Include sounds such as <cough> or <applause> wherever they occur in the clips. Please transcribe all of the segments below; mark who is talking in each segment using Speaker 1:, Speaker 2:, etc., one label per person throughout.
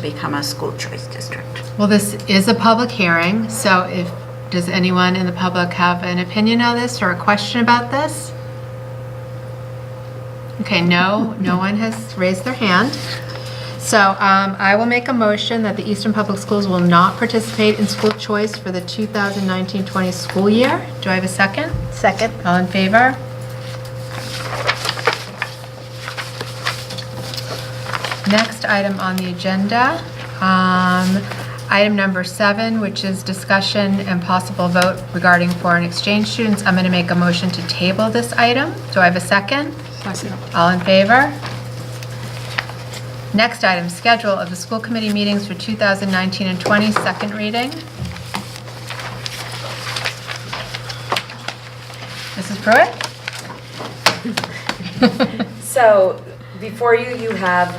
Speaker 1: become a school choice district.
Speaker 2: Well, this is a public hearing, so if, does anyone in the public have an opinion on this or a question about this? Okay, no, no one has raised their hand. So um, I will make a motion that the Eastern Public Schools will not participate in school choice for the 2019-20 school year. Do I have a second? Second. All in favor? Next item on the agenda, um, item number seven, which is discussion and possible vote regarding foreign exchange students. I'm going to make a motion to table this item. Do I have a second? All in favor? Next item, schedule of the school committee meetings for 2019 and 20, second reading. Mrs. Pruitt?
Speaker 3: So before you, you have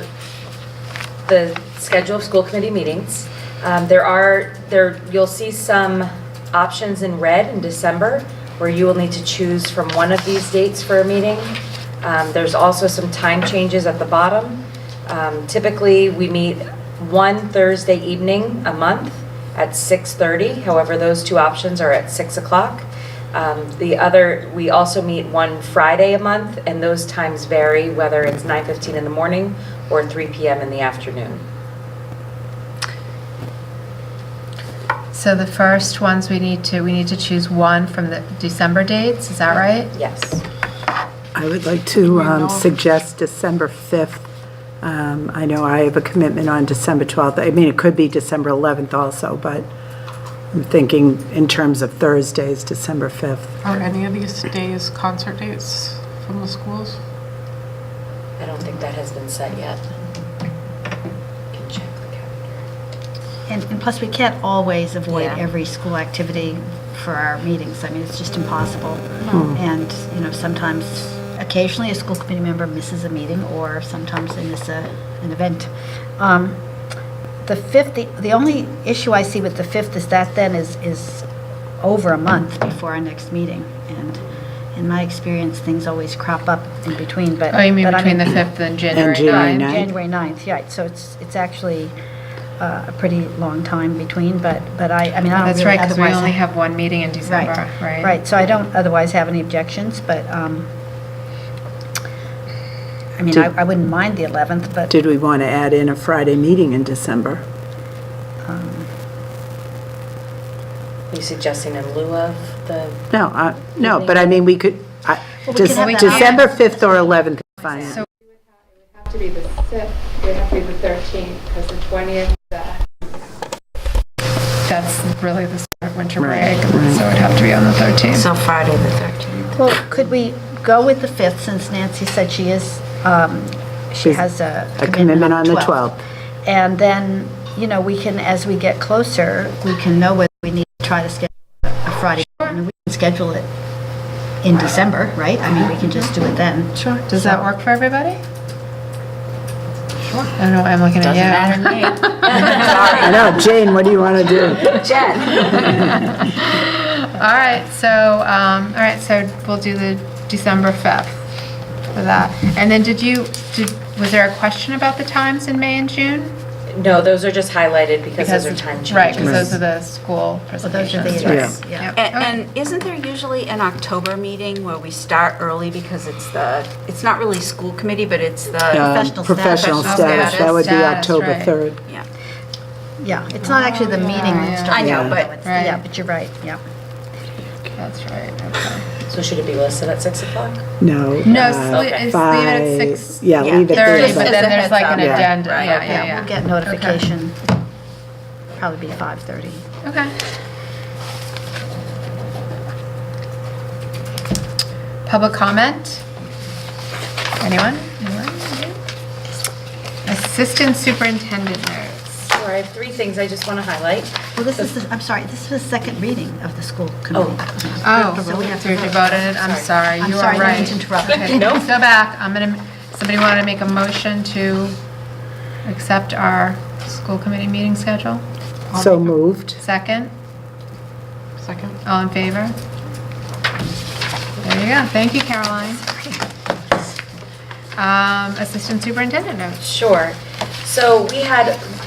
Speaker 3: the schedule of school committee meetings. Um, There are, there, you'll see some options in red in December where you will need to choose from one of these dates for a meeting. Um, There's also some time changes at the bottom. Um, Typically, we meet one Thursday evening a month at 6:30. However, those two options are at 6 o'clock. Um, The other, we also meet one Friday a month, and those times vary whether it's 9:15 in the morning or 3 PM in the afternoon.
Speaker 2: So the first ones we need to, we need to choose one from the December dates, is that right?
Speaker 3: Yes.
Speaker 4: I would like to um, suggest December 5th. Um, I know I have a commitment on December 12th. I mean, it could be December 11th also, but I'm thinking in terms of Thursdays, December 5th.
Speaker 5: Are any of these days concert dates from the schools?
Speaker 3: I don't think that has been set yet. Can check the calendar.
Speaker 6: And, and plus, we can't always avoid
Speaker 3: Yeah.
Speaker 6: every school activity for our meetings. I mean, it's just impossible. And, you know, sometimes, occasionally, a school committee member misses a meeting, or sometimes they miss a, an event. Um, The fifth, the, the only issue I see with the fifth is that then is, is over a month before our next meeting. And in my experience, things always crop up in between, but.
Speaker 2: Oh, you mean
Speaker 6: but I
Speaker 2: between the 5th and January
Speaker 4: January
Speaker 2: 9th?
Speaker 4: ninth.
Speaker 6: January 9th, yeah, so it's, it's actually uh, a pretty long time between, but, but I, I mean, I don't
Speaker 2: That's
Speaker 6: really
Speaker 2: right, because we only
Speaker 6: otherwise.
Speaker 2: have one meeting in December, right?
Speaker 6: Right, so I don't otherwise have any objections, but, um, I mean, I
Speaker 4: Did-
Speaker 6: I wouldn't mind the 11th, but
Speaker 4: Did we want to add in a Friday meeting in December?
Speaker 3: Are you suggesting in lieu of the?
Speaker 4: No, I- no, but I mean, we could, I-
Speaker 6: Well, we
Speaker 4: Dec-
Speaker 6: could have that
Speaker 4: December 5th or 11th, fine.
Speaker 2: So-
Speaker 7: have to be the fifth, it would have to be the thirteenth, because the twentieth,
Speaker 5: That's really the start winter break, so it'd have to be on the 13th.
Speaker 1: So Friday, the 13th.
Speaker 6: Well, could we go with the 5th, since Nancy said she is, um, she
Speaker 4: She's-
Speaker 6: has a
Speaker 4: a
Speaker 6: commitment on the 12th?
Speaker 4: 12th.
Speaker 6: And then, you know, we can, as we get closer, we can know whether we need to try to schedule a Friday. And we can schedule it in December, right? I mean, we can just do it then.
Speaker 2: Sure, does that work for everybody? Sure. I don't know, why I'm looking at you.
Speaker 4: I know, Jane, what do you want to do?
Speaker 2: All right, so, um, all right, so we'll do the December 5th for that. And then did you, did, was there a question about the times in May and June?
Speaker 3: No, those are just highlighted because those are time
Speaker 2: Right, because
Speaker 3: changes.
Speaker 2: those are the school
Speaker 6: Well, those
Speaker 2: <laughs>
Speaker 6: are
Speaker 2: presentations.
Speaker 6: the,
Speaker 2: right.
Speaker 6: events, yeah.
Speaker 2: Yep.
Speaker 1: And isn't there usually an October meeting where we start early because it's the, it's not really school committee, but it's the,
Speaker 6: Professional
Speaker 4: Um,
Speaker 6: status.
Speaker 2: Oh,
Speaker 4: Professional status, that would be
Speaker 2: Status,
Speaker 4: October
Speaker 2: right.
Speaker 4: 3rd.
Speaker 1: yeah.
Speaker 6: Yeah, it's not actually the meeting that starts.
Speaker 1: I know,
Speaker 6: though.
Speaker 1: but-
Speaker 6: It's- Yeah,
Speaker 2: Right.
Speaker 6: but you're right, yeah.
Speaker 2: That's right, okay.
Speaker 3: So should it be listed at 6 o'clock?
Speaker 4: No.
Speaker 2: No,
Speaker 4: uh,
Speaker 2: just leave it- just leave it at
Speaker 4: five-
Speaker 2: six.
Speaker 4: Yeah, leave it there.
Speaker 2: Thirty,
Speaker 1: Just
Speaker 2: but
Speaker 1: as
Speaker 4: but-
Speaker 1: a
Speaker 2: then there's
Speaker 1: heads
Speaker 2: like
Speaker 1: up.
Speaker 2: an
Speaker 4: Yeah.
Speaker 2: agenda,
Speaker 1: Right.
Speaker 2: yeah, yeah,
Speaker 6: Yeah,
Speaker 2: yeah.
Speaker 6: we'll get notification, probably be 5:30.
Speaker 2: Okay. Public comment? Anyone? Anyone? Assistant Superintendent notes.
Speaker 3: Sure, I have three things I just want to highlight.
Speaker 6: Well, this is, the- I'm sorry, this is the second reading of the school committee.
Speaker 2: Oh,
Speaker 6: So we have to
Speaker 2: we already
Speaker 6: vote.
Speaker 2: voted it, I'm sorry,
Speaker 6: Uh, I'm
Speaker 2: you are
Speaker 6: sorry, I
Speaker 2: right.
Speaker 6: didn't interrupt. <laughs>
Speaker 2: Okay,
Speaker 3: Nope.
Speaker 2: Go back, I'm gonna, somebody want to make a motion to accept our school committee meeting schedule?
Speaker 4: So moved.
Speaker 2: Second?
Speaker 5: Second?
Speaker 2: All in favor? There you go. Thank you, Caroline. Um, Assistant Superintendent notes.
Speaker 3: Sure. So we had